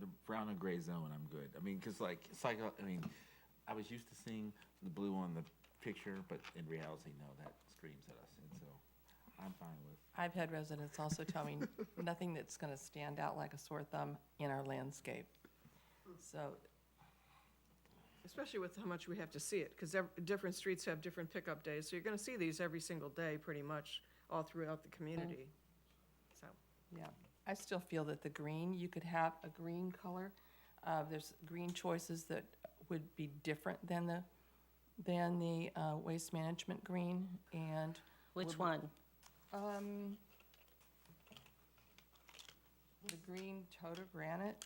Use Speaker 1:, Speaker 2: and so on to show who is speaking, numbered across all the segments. Speaker 1: the brown and gray zone, I'm good. I mean, because like it's like uh, I mean, I was used to seeing the blue on the picture, but in reality, no, that screams at us, and so I'm fine with.
Speaker 2: I've had residents also tell me nothing that's going to stand out like a sore thumb in our landscape. So
Speaker 3: Especially with how much we have to see it, because different streets have different pickup days, so you're gonna see these every single day, pretty much, all throughout the community. So,
Speaker 2: Yeah, I still feel that the green, you could have a green color. Uh, there's green choices that would be different than the, than the, uh, waste management green and,
Speaker 4: Which one?
Speaker 2: um, the green total granite,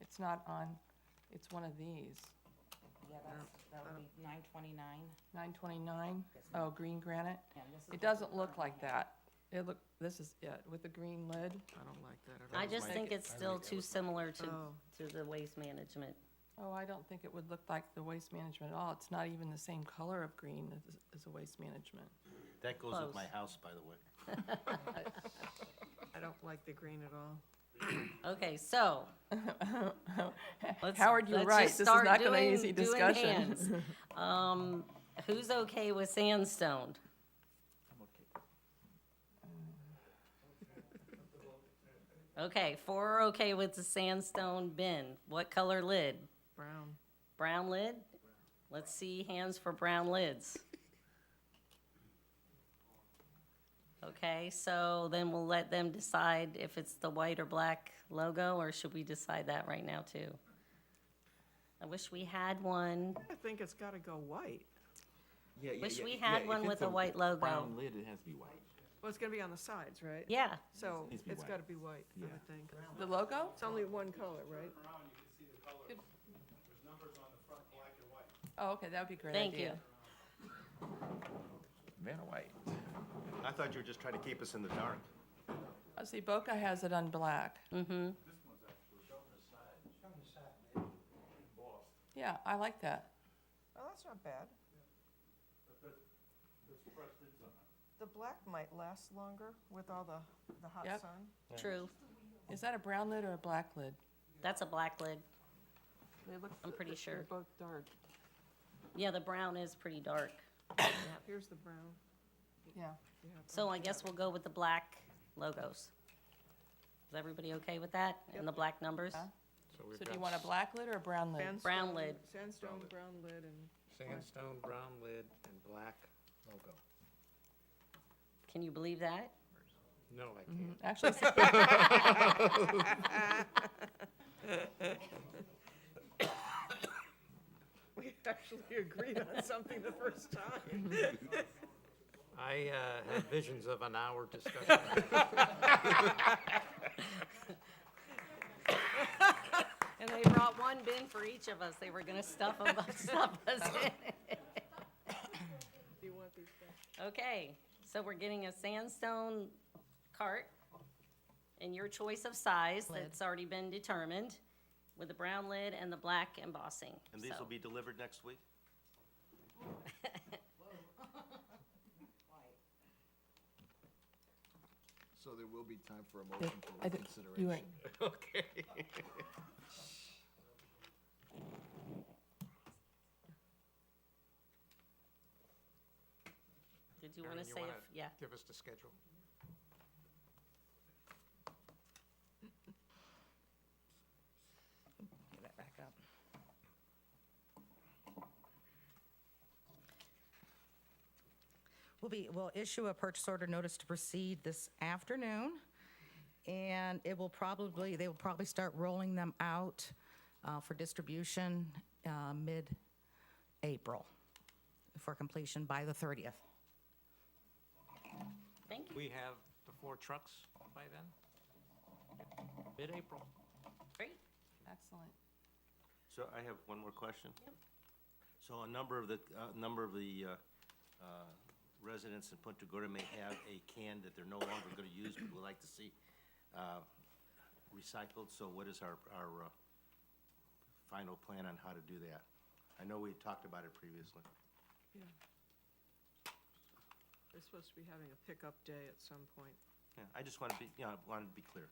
Speaker 2: it's not on, it's one of these.
Speaker 5: Yeah, that's, that would be nine twenty-nine.
Speaker 2: Nine twenty-nine, oh, green granite.
Speaker 5: Yeah, this is
Speaker 2: It
Speaker 5: what
Speaker 2: doesn't
Speaker 5: we
Speaker 2: look like
Speaker 5: currently have.
Speaker 2: that. It look, this is it with the green lid.
Speaker 3: I don't like that at all.
Speaker 4: I just think it's still too similar to,
Speaker 3: Oh.
Speaker 4: to the waste management.
Speaker 2: Oh, I don't think it would look like the waste management at all. It's not even the same color of green as, as a waste management.
Speaker 6: That goes with my
Speaker 4: Close.
Speaker 6: house, by the way.
Speaker 3: I don't like the green at all.
Speaker 4: Okay, so. let's-
Speaker 2: Howard, you're
Speaker 4: let's
Speaker 2: right.
Speaker 4: just
Speaker 2: This is
Speaker 4: start
Speaker 2: not gonna be
Speaker 4: doing-
Speaker 2: easy
Speaker 4: doing
Speaker 2: discussion.
Speaker 4: hands. Um, who's okay with sandstone? Okay, four are okay with the sandstone bin. What color lid?
Speaker 3: Brown.
Speaker 4: Brown lid? Let's see hands for brown lids. Okay, so then we'll let them decide if it's the white or black logo, or should we decide that right now too? I wish we had one.
Speaker 3: I think it's gotta go white.
Speaker 1: Yeah, yeah,
Speaker 4: Wish
Speaker 1: yeah,
Speaker 4: we
Speaker 1: yeah,
Speaker 4: had
Speaker 1: if
Speaker 4: one
Speaker 1: it's
Speaker 4: with a white logo.
Speaker 1: Brown lid, it has to be white.
Speaker 3: Well, it's gonna be on the sides, right?
Speaker 4: Yeah,
Speaker 3: So,
Speaker 1: Needs to be
Speaker 3: it's
Speaker 1: white.
Speaker 3: gotta be white, I
Speaker 1: Yeah.
Speaker 3: would think.
Speaker 2: The logo?
Speaker 3: It's only one color, right?
Speaker 2: Oh, okay, that would be a great.
Speaker 4: thank you.
Speaker 2: idea.
Speaker 1: Man, or white.
Speaker 6: I thought you were just trying to keep us in the dark.
Speaker 2: I Oh, see Boca has it on black.
Speaker 4: Mm-hmm.
Speaker 2: Yeah, I like that.
Speaker 3: Oh, that's not bad. The black might last longer with all the, the hot
Speaker 2: Yep.
Speaker 3: sun.
Speaker 4: True.
Speaker 2: Is that a brown lid or a black lid?
Speaker 4: That's a black lid.
Speaker 2: They look.
Speaker 4: I'm pretty
Speaker 2: They're
Speaker 4: sure.
Speaker 2: both dark.
Speaker 4: Yeah, the brown is pretty dark.
Speaker 3: Here's the brown.
Speaker 2: Yeah.
Speaker 3: You have-
Speaker 4: So I guess we'll go with the black logos. Is everybody okay with that? And the black numbers?
Speaker 2: Yeah. So do you want a
Speaker 7: black
Speaker 2: black lid or a brown lid?
Speaker 3: Sandstone-
Speaker 4: Brown lid.
Speaker 3: Sandstone, brown lid, and
Speaker 7: Sandstone, brown lid, and black logo.
Speaker 4: Can you believe that?
Speaker 7: No, I
Speaker 2: Mm-hmm.
Speaker 7: can't.
Speaker 2: Actually,
Speaker 3: we actually agreed on something the first time.
Speaker 7: I uh, had visions of an hour discussion.
Speaker 4: And they brought one bin for each of us. They were gonna stuff them, stuff us in.
Speaker 3: Do you want these back?
Speaker 4: Okay, so we're getting a sandstone cart and your choice of size that's already been determined with the brown lid and the black embossing.
Speaker 6: And these
Speaker 4: So-
Speaker 6: will be delivered next week?
Speaker 8: So there will be time for a
Speaker 2: Yeah,
Speaker 8: motion for
Speaker 2: I d- you
Speaker 8: reconsideration.
Speaker 2: went,
Speaker 7: Okay.
Speaker 4: Did you wanna
Speaker 7: Erin, you
Speaker 4: say,
Speaker 7: wanna
Speaker 4: if- yeah,
Speaker 7: Give us the schedule.
Speaker 5: Get that back up. We'll be, we'll issue a purchase order notice to proceed this afternoon. And it will probably, they will probably start rolling them out uh, for distribution uh, mid-April for completion by the 30th.
Speaker 4: thank you.
Speaker 7: We have the four trucks by then? Mid-April.
Speaker 4: Great.
Speaker 2: excellent.
Speaker 6: So I have one more question. So a number of the, uh number of the uh, uh, residents in Punta Gorda may have a can that they're no longer going to use, but would like to see uh, recycled. So what is our, our uh, final plan on how to do that? I know we talked about it previously.
Speaker 3: Yeah. They're supposed to be having a pickup day at some point.
Speaker 6: Yeah, I just want to be, you know, I wanted to be clear.